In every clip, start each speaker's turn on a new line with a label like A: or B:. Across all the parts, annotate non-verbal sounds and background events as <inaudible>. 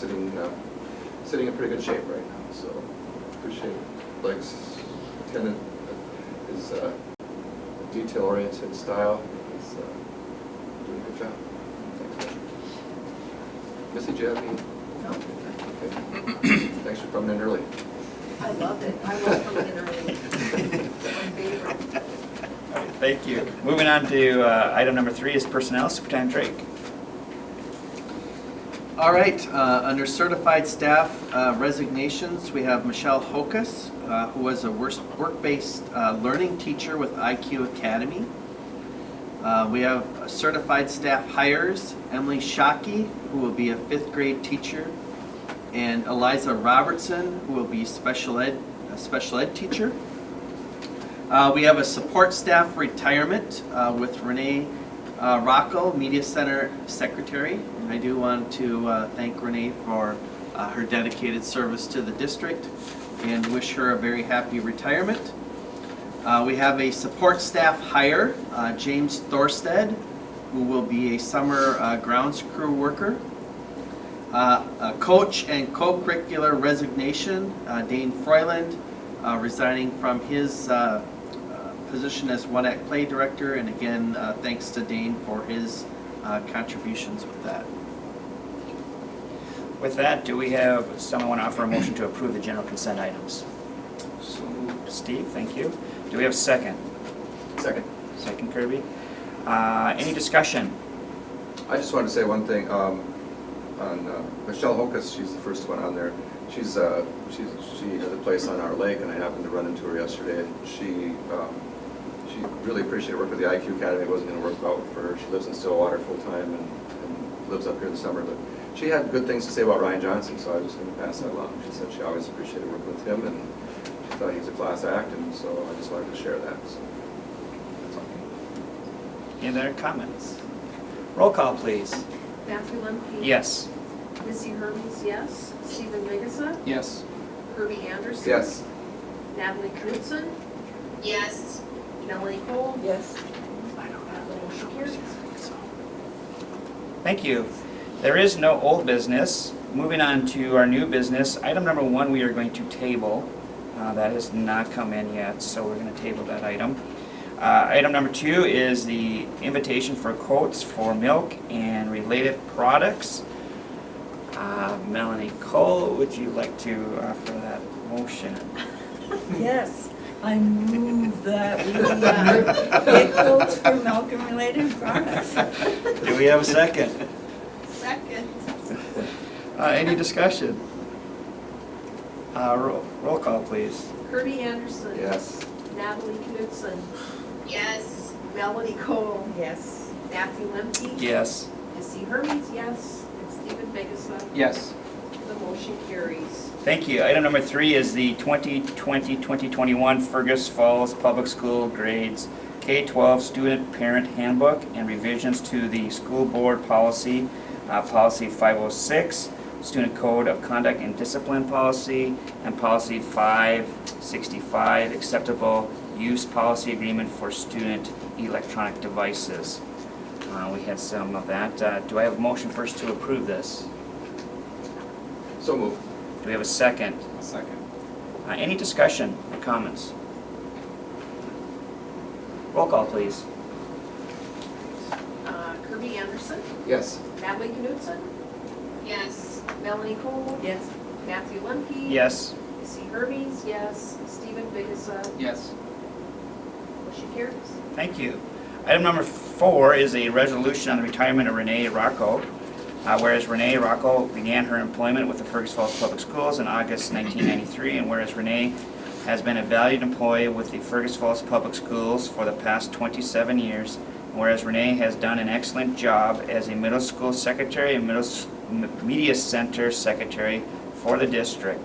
A: sitting, uh, sitting in pretty good shape right now, so appreciate Blake's tenant, his uh, detail-oriented style, he's uh, doing a good job. Thanks, Blake. Missy, do you have any?
B: No,
A: Okay. Thanks for coming in early.
B: I loved it. I was coming in early. It's my favorite.
C: All right, Thank you. Moving on to uh, item number three is personnel, Superintendent Drake.
D: All right, uh, under certified staff uh, resignations, we have Michelle Hokus, uh, who was a wors- work-based uh, learning teacher with IQ Academy. Uh, We have certified staff hires, Emily Shockey, who will be a fifth grade teacher, and Eliza Robertson, who will be special ed, a special ed teacher. Uh, We have a support staff retirement uh, with Renee uh, Rocco, Media Center Secretary. And I do want to uh, thank Renee for uh, her dedicated service to the district and wish her a very happy retirement. Uh, We have a support staff hire, uh, James Thorsted, who will be a summer uh, grounds crew worker. Uh, A coach and co-curricular resignation, uh, Dane Froyland uh, resigning from his uh, uh, position as One Act Play Director. And again, uh, thanks to Dane for his uh, contributions with that.
C: With that, do we have someone want to offer a motion to approve the general consent items? Steve, thank you. Do we have a second?
A: Second.
C: Second Kirby. Uh, Any discussion?
A: I just wanted to say one thing, um, on uh, Michelle Hokus, she's the first one on there. She's, uh, she's, she has a place on our lake, and I happened to run into her yesterday. She, um, she really appreciated work with the IQ Academy, it wasn't gonna work out for her. She lives in Stillwater full-time and, and lives up here in the summer, but she had good things to say about Ryan Johnson, so I was just gonna pass that along. She said she always appreciated working with him, and she thought he was a class act, and so I just wanted to share that, so. that's all.
C: Any other comments? Roll call, please.
B: Matthew Lemke.
C: Yes.
B: Missy Hermes, yes. Stephen Vigasa. Yes. Herbie Anderson.
A: Yes,
B: Natalie Knutson.
E: Yes.
B: Melanie Cole.
F: Yes.
B: Motion carries.
C: Thank you. There is no old business. Moving on to our new business, item number one, we are going to table. Uh, That has not come in yet, so we're going to table that item. Uh, Item number two is the invitation for quotes for milk and related products. Uh, Melanie Cole, would you like to offer that motion?
F: Yes, I move that we uh, get quotes for milk and related
C: <laughs>
F: products.
C: Do we have a second?
E: Second.
C: Uh, Any discussion? Uh, Roll roll call, please.
B: Herbie Anderson.
A: yes.
B: Natalie Knutson.
E: Yes.
B: Melanie Cole.
F: Yes.
B: Matthew Lemke.
C: Yes.
B: Missy Hermes, yes. And Stephen Vigasa.
D: Yes.
B: The motion carries.
C: Thank you. Item number three is the 2020-2021 Fergus Falls Public School Grades K-12 Student Parent Handbook and revisions to the school board policy, uh, Policy 506, Student Code of Conduct and Discipline Policy, and Policy 565, Acceptable Use Policy Agreement for Student Electronic Devices. Uh, We had some of that. Uh, Do I have a motion first to approve this?
A: So moved.
C: Do we have a second?
D: Second.
C: Uh, Any discussion or comments? Roll call, please.
B: Uh, Herbie Anderson.
A: Yes.
B: Natalie Knutson.
E: Yes.
B: Melanie Cole.
F: Yes.
B: Matthew Lemke.
C: Yes.
B: Missy Hermes, yes. Stephen Vigasa,
D: Yes.
B: motion carries.
C: Thank you. Item number four is a resolution on the retirement of Renee Rocco. Uh, Whereas Renee Rocco began her employment with the Fergus Falls Public Schools in August 1993, and whereas Renee has been a valued employee with the Fergus Falls Public Schools for the past 27 years, and whereas Renee has done an excellent job as a middle school secretary and middle s- m- media center secretary for the district,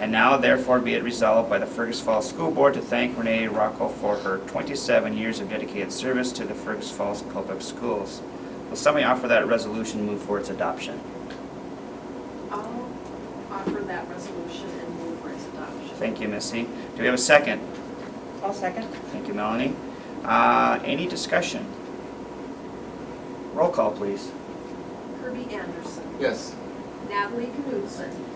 C: And now therefore be it resolved by the Fergus Falls School Board to thank Renee Rocco for her 27 years of dedicated service to the Fergus Falls Public Schools. Will somebody offer that resolution and move for its adoption?
B: I'll offer that resolution and move for its adoption.
C: Thank you, Missy. Do we have a second?
F: I'll second.
C: Thank you, Melanie. Uh, Any discussion? Roll call, please.
B: Kirby Anderson,
A: Yes.
B: Natalie Knudsen.